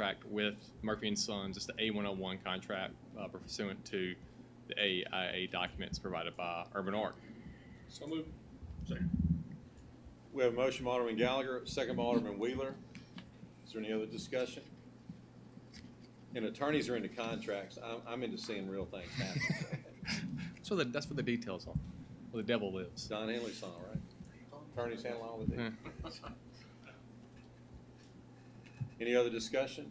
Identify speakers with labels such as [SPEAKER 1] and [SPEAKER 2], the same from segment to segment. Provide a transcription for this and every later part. [SPEAKER 1] contract with Murphy and Sons. It's the A101 contract uh, pursuant to the AIA documents provided by Urban Arc.
[SPEAKER 2] So move.
[SPEAKER 3] We have a motion by Alderman Gallagher, second by Alderman Wheeler. Is there any other discussion? And attorneys are into contracts. I'm, I'm into seeing real things happen.
[SPEAKER 1] So that, that's what the details are. Where the devil lives.
[SPEAKER 3] Don Henley's song, right? Attorneys handle all the deals. Any other discussion?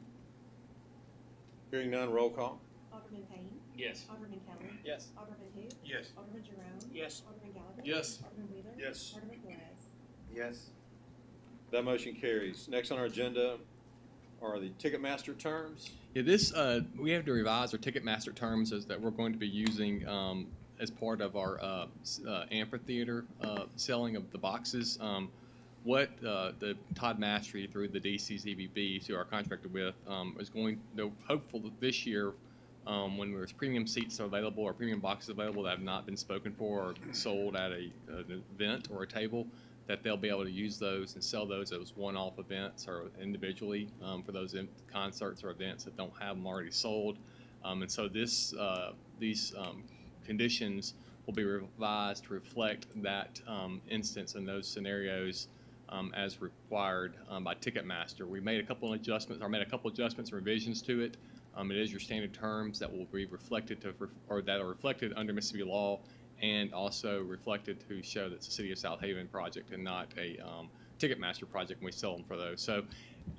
[SPEAKER 3] Hearing none, roll call.
[SPEAKER 4] Alderman Payne.
[SPEAKER 2] Yes.
[SPEAKER 4] Alderman Kelly.
[SPEAKER 2] Yes.
[SPEAKER 4] Alderman who?
[SPEAKER 2] Yes.
[SPEAKER 4] Alderman Jerome.
[SPEAKER 2] Yes.
[SPEAKER 4] Alderman Gallagher.
[SPEAKER 2] Yes.
[SPEAKER 4] Alderman Wheeler.
[SPEAKER 2] Yes.
[SPEAKER 4] Alderman Flores.
[SPEAKER 5] Yes.
[SPEAKER 3] That motion carries. Next on our agenda are the Ticketmaster terms.
[SPEAKER 1] Yeah, this, uh, we have to revise our Ticketmaster terms as that we're going to be using, um, as part of our, uh, s- uh, amphitheater, uh, selling of the boxes. Um, what, uh, the Todd Mastery through the DC's EBB, who our contractor with, um, is going, they're hopeful that this year, um, when there's premium seats available or premium boxes available that have not been spoken for or sold at a, an event or a table, that they'll be able to use those and sell those as one-off events or individually um, for those in- concerts or events that don't have them already sold. Um, and so this, uh, these um, conditions will be revised to reflect that um, instance and those scenarios um, as required um, by Ticketmaster. We made a couple of adjustments, or made a couple adjustments and revisions to it. Um, it is your standard terms that will be reflected to, or that are reflected under Mississippi law and also reflected to show that it's a City of South Haven project and not a um, Ticketmaster project, and we sell them for those. So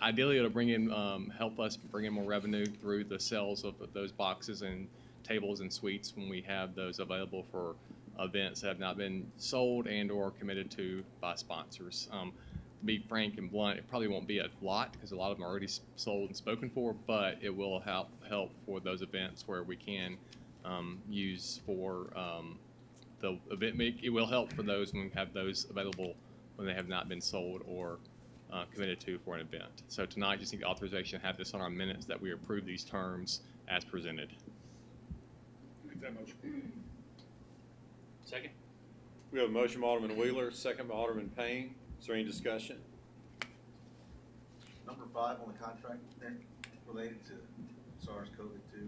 [SPEAKER 1] ideally, it'll bring in, um, help us bring in more revenue through the sales of those boxes and tables and suites when we have those available for events that have not been sold and/or committed to by sponsors. Um, to be frank and blunt, it probably won't be a lot because a lot of them are already s- sold and spoken for, but it will help help for those events where we can um, use for um, the event make it will help for those when we have those available when they have not been sold or uh, committed to for an event. So tonight, just need authorization to have this on our minutes that we approve these terms as presented.
[SPEAKER 2] Make that motion. Second?
[SPEAKER 3] We have a motion by Alderman Wheeler, second by Alderman Payne. Is there any discussion?
[SPEAKER 5] Number five on the contract, that related to SARS COVID-2,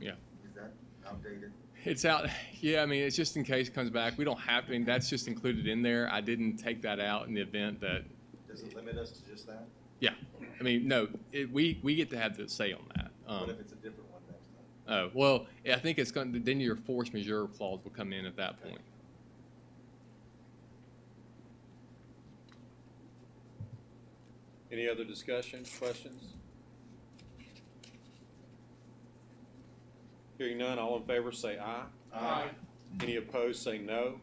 [SPEAKER 1] Yeah.
[SPEAKER 5] is that outdated?
[SPEAKER 1] It's out. Yeah, I mean, it's just in case it comes back. We don't have to. I mean, that's just included in there. I didn't take that out in the event that.
[SPEAKER 5] Does it limit us to just that?
[SPEAKER 1] Yeah, I mean, no, it, we we get to have the say on that.
[SPEAKER 5] What
[SPEAKER 1] Um,
[SPEAKER 5] if it's a different one next time?
[SPEAKER 1] oh well, I think it's going. to Then your force majeure clause will come in at that point.
[SPEAKER 3] Any other discussion, questions? Hearing none, all in favor say aye.
[SPEAKER 5] Aye.
[SPEAKER 3] Any opposed say no.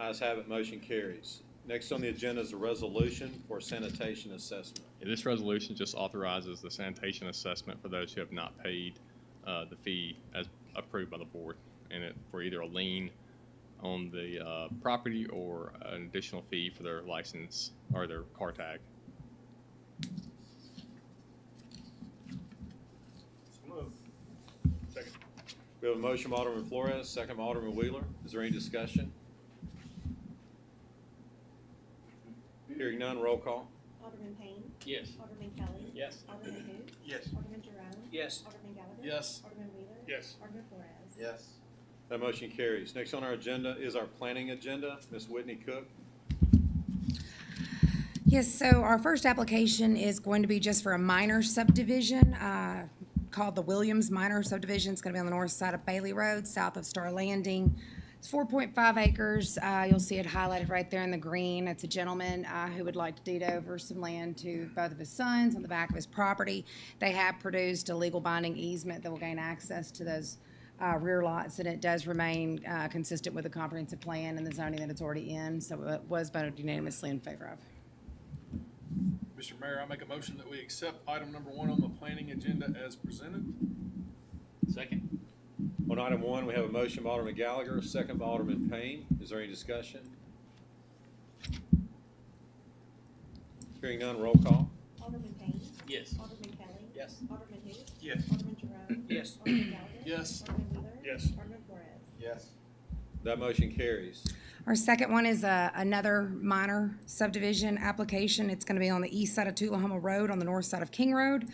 [SPEAKER 3] Ayes have it, motion carries. Next on the agenda is a resolution for sanitation assessment.
[SPEAKER 1] And This resolution just authorizes the sanitation assessment for those who have not paid uh, the fee as approved by the board, and it for either a lien on the uh, property or an additional fee for their license or their car tag.
[SPEAKER 2] So move. Second?
[SPEAKER 3] We have a motion by Alderman Flores, second by Alderman Wheeler. Is there any discussion? Hearing none, roll call.
[SPEAKER 4] Alderman Payne.
[SPEAKER 2] Yes.
[SPEAKER 4] Alderman Kelly.
[SPEAKER 2] Yes.
[SPEAKER 4] Alderman who?
[SPEAKER 2] Yes.
[SPEAKER 4] Alderman Jerome.
[SPEAKER 2] Yes.
[SPEAKER 4] Alderman Gallagher.
[SPEAKER 2] Yes.
[SPEAKER 4] Alderman Wheeler.
[SPEAKER 2] Yes.
[SPEAKER 4] Alderman Flores.
[SPEAKER 5] Yes.
[SPEAKER 3] That motion carries. Next on our agenda is our planning agenda. Ms. Whitney Cook.
[SPEAKER 6] Yes, so our first application is going to be just for a minor subdivision uh, called the Williams Minor Subdivision. It's going to be on the north side of Bailey Road, south of Star Landing. It's 4.5 acres. Uh, You'll see it highlighted right there in the green. It's a gentleman uh, who would like to deed over some land to both of his sons on the back of his property. They have produced a legal binding easement that will gain access to those uh, rear lots, and it does remain uh, consistent with the comprehensive plan and the zoning that it's already in, so it was voted unanimously in favor of.
[SPEAKER 7] Mr. Mayor, I make a motion that we accept item number one on the planning agenda as presented.
[SPEAKER 2] Second?
[SPEAKER 3] On item one, we have a motion by Alderman Gallagher, second by Alderman Payne. Is there any discussion? Hearing none, roll call.
[SPEAKER 4] Alderman Payne.
[SPEAKER 2] Yes.
[SPEAKER 4] Alderman Kelly.
[SPEAKER 2] Yes.
[SPEAKER 4] Alderman who?
[SPEAKER 7] Yes.
[SPEAKER 4] Alderman Jerome.
[SPEAKER 2] Yes.
[SPEAKER 4] Alderman Gallagher.
[SPEAKER 7] Yes.
[SPEAKER 4] Alderman Wheeler.
[SPEAKER 2] Yes.
[SPEAKER 4] Alderman Flores.
[SPEAKER 5] Yes.
[SPEAKER 3] That motion carries.
[SPEAKER 6] Our second one is uh, another minor subdivision application. It's going to be on the east side of Tullahoma Road, on the north side of King Road.